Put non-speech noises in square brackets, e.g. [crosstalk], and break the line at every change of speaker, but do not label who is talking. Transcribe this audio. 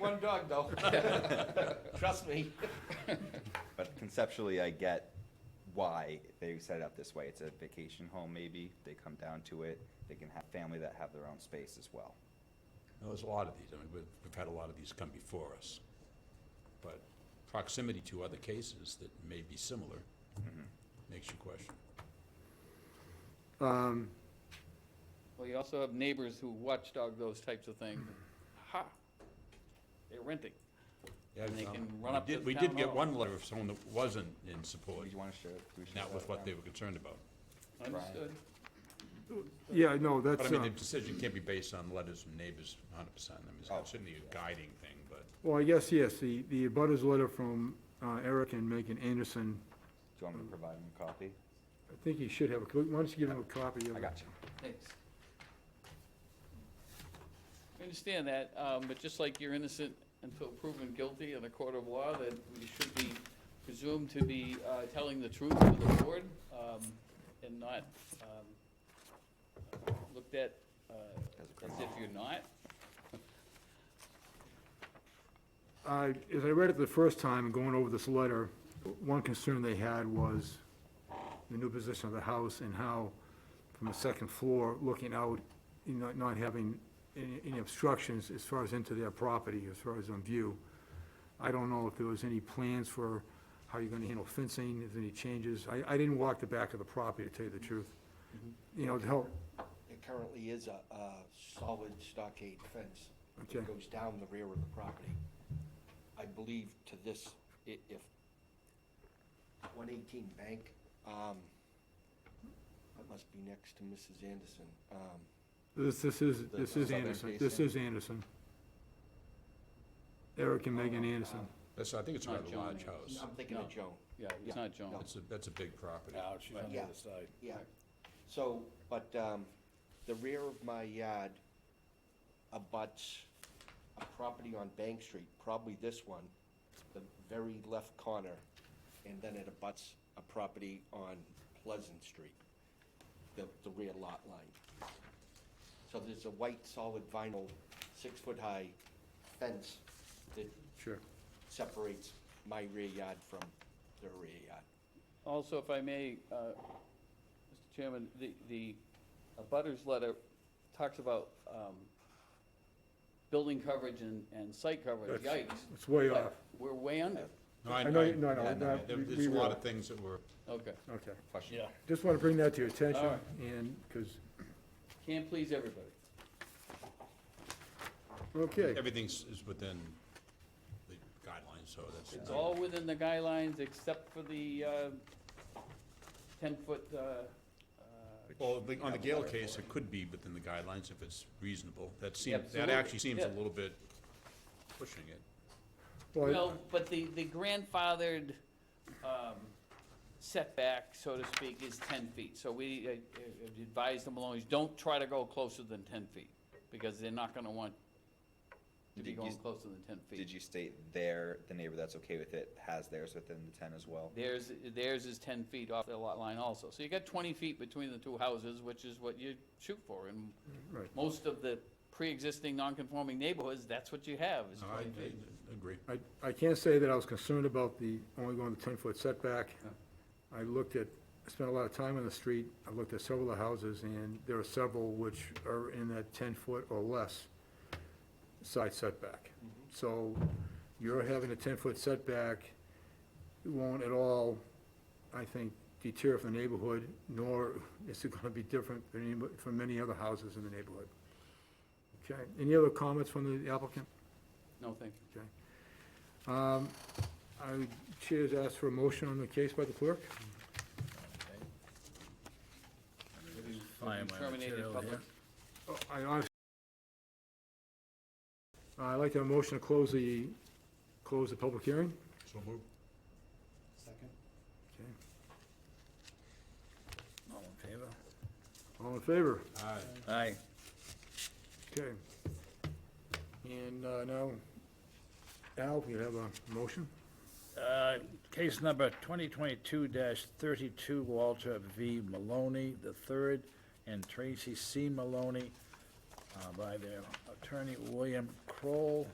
one dog, though. [laughs] Trust me.
But conceptually, I get why they set it up this way. It's a vacation home, maybe. They come down to it. They can have family that have their own space as well.
Now, There's a lot of these, I mean, we've, we've had a lot of these come before us. But proximity to other cases that may be similar makes you question.
Um,
Well, you also have neighbors who watchdog those types of things. Ha! They're renting.
Yeah,
And they
um,
can run
we
up to
did-
the
We did
town
get
hall.
one letter of someone that wasn't in support,
Would you want to share? do we share
not
that
with what
now?
they were concerned about.
Understood.
Yeah, no,
But I
that's,
mean, the
uh,
decision can't be based on letters from neighbors hundred percent, I mean,
Oh.
it's certainly a guiding thing, but
well, I guess, yes, the, the abutters letter from uh, Eric and Megan Anderson,
Do you want me to provide them a copy?
I think he should have, a co- why don't you give him a copy of
I
it?
got you.
Thanks. I understand that, um, but just like you're innocent until proven guilty in a court of law, that you should be presumed to be uh, telling the truth to the board um, and not um, looked at uh,
As a
as
criminal.
if you're not.
I, Uh, as I read it the first time, going over this letter, one concern they had was the new position of the house and how, from the second floor, looking out, you know, not having any any obstructions as far as into their property, as far as on view. I don't know if there was any plans for how you're gonna handle fencing, if there's any changes. I, I didn't walk the back of the property, to tell you the truth. You know, to help,
It currently is a, a solid stockade fence.
Okay.
that Goes down the rear of the property. I believe to this, i- if one eighteen bank, um, that must be next to Mrs. Anderson. Um,
this, this is, this is
Southern
Anderson, this
facing.
is Anderson. Eric and Megan Anderson.
that's, I think it's a
Not
rather
John
large
Anderson.
house.
I'm thinking of Joan.
Yeah,
Yeah,
it's not John.
no.
That's a, that's a big property.
on the other side. Yeah, so, but, um, the rear of my yard abuts a property on Bank Street, probably this one, the very left corner, and then it abuts a property on Pleasant Street, the, the rear lot line. So there's a white solid vinyl, six-foot-high fence that
Sure.
separates my rear yard from their rear yard.
Also, if I may, uh, Mr. Chairman, the, the abutters letter talks about um, building coverage and, and site coverage, yikes.
It's way
But
off.
We're way under,
No, I,
I know,
I,
you- no, no,
yeah, no,
that-
there-
we-
there's
we
a lot
will.
of things that were,
okay.
Okay,
Question.
just want to bring that to your
All
attention,
right.
and, because,
Can't please everybody.
okay,
everything's is within the guidelines, so that's.
It's all within the guidelines except for the uh, ten-foot,
Well, the- on the Gale case, it could be within the guidelines if it's reasonable. That seems, that
Absolutely,
actually seems a
yeah.
little bit pushing it.
well,
well, but the, the grandfathered um, setback, so to speak, is ten feet. So we uh, uh, advise the Maloneys, don't try to go closer than ten feet, because they're not gonna want to
Did
be
you-
going closer than ten
Did
feet.
you state their, the neighbor that's okay with it has theirs within the ten as well?
Theirs, theirs is ten feet off the lot line also. So you got twenty feet between the two houses, which is what you shoot for. And
Right.
most of the pre-existing non-conforming neighborhoods, that's what you have, is
No, I,
twenty feet.
I agree.
I, I can't say that I was concerned about the, only going the ten-foot setback. I looked at, I spent a lot of time on the street, I looked at several of the houses, and there are several which are in that ten-foot or less side setback. So you're having a ten-foot setback, it won't at all, I think, deter from the neighborhood, nor [laughs] is it gonna be different than any, from many other houses in the neighborhood. Okay, any other comments from the applicant?
No, thank you.
Okay. Um, I would, Chair's asked for a motion on the case by the clerk.
Find my
Terminated
material
public-
here.
Oh, I honestly. I'd like to have a motion to close the, close the public hearing.
So move.
Okay.
All in favor?
All in favor?
Aye.
Aye.
Okay. And uh, now, Al, you have a motion?
Uh, Case number 2022-32, Walter V. Maloney III and Tracy C. Maloney uh, by their attorney William Kroll,